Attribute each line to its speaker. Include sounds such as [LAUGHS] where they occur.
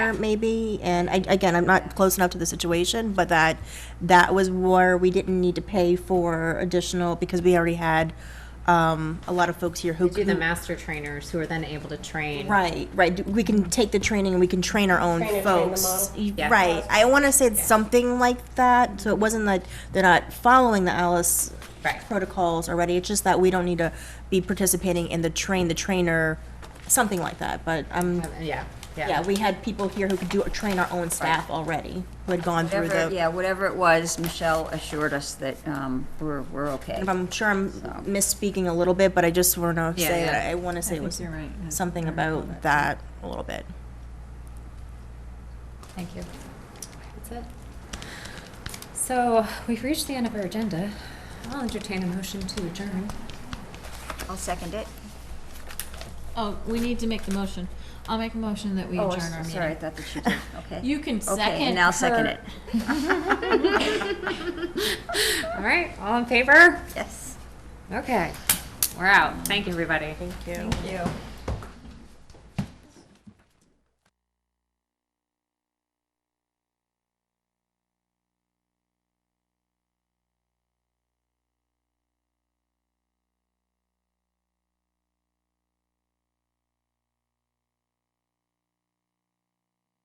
Speaker 1: there, maybe, and I, again, I'm not close enough to the situation, but that, that was where we didn't need to pay for additional, because we already had, um, a lot of folks here who.
Speaker 2: do the
Speaker 1: who-
Speaker 2: master trainers who are then able to train.
Speaker 1: Right, right, we can take the training and we can train our own
Speaker 3: Train and train the
Speaker 1: folks.
Speaker 3: model.
Speaker 1: Y-
Speaker 2: Yeah.
Speaker 1: Right, I wanna say it's something like that, so it wasn't that they're not following the Alice
Speaker 2: Right.
Speaker 1: protocols already, it's just that we don't need to be participating in the train, the trainer, something like that, but I'm
Speaker 2: Um, Yeah, yeah.
Speaker 1: yeah, we had people here who could do, train our own staff already, who had gone through
Speaker 4: Whatever,
Speaker 1: the,
Speaker 4: yeah, whatever it was, Michelle assured us that um, we're, we're okay.
Speaker 1: if I'm sure I'm misspeaking a little bit, but I just wanna
Speaker 2: Yeah,
Speaker 1: say, that
Speaker 2: yeah.
Speaker 1: I wanna say it was
Speaker 4: you're right. I
Speaker 1: something about that a little bit.
Speaker 2: Thank you. That's it. So we've reached the end of our agenda. I'll entertain a motion to adjourn.
Speaker 4: I'll second it.
Speaker 5: Oh, we need to make the motion. I'll make a motion that we
Speaker 4: Oh,
Speaker 5: adjourn our
Speaker 4: Sorry, I
Speaker 5: meeting.
Speaker 4: thought that
Speaker 5: [LAUGHS]
Speaker 4: you did, okay.
Speaker 5: You can
Speaker 4: Okay,
Speaker 5: second
Speaker 4: and I'll second
Speaker 5: her-
Speaker 4: it,
Speaker 2: All right, all in favor?
Speaker 4: yes.
Speaker 2: Okay, we're out. Thank you, everybody.
Speaker 1: Thank you.
Speaker 4: You.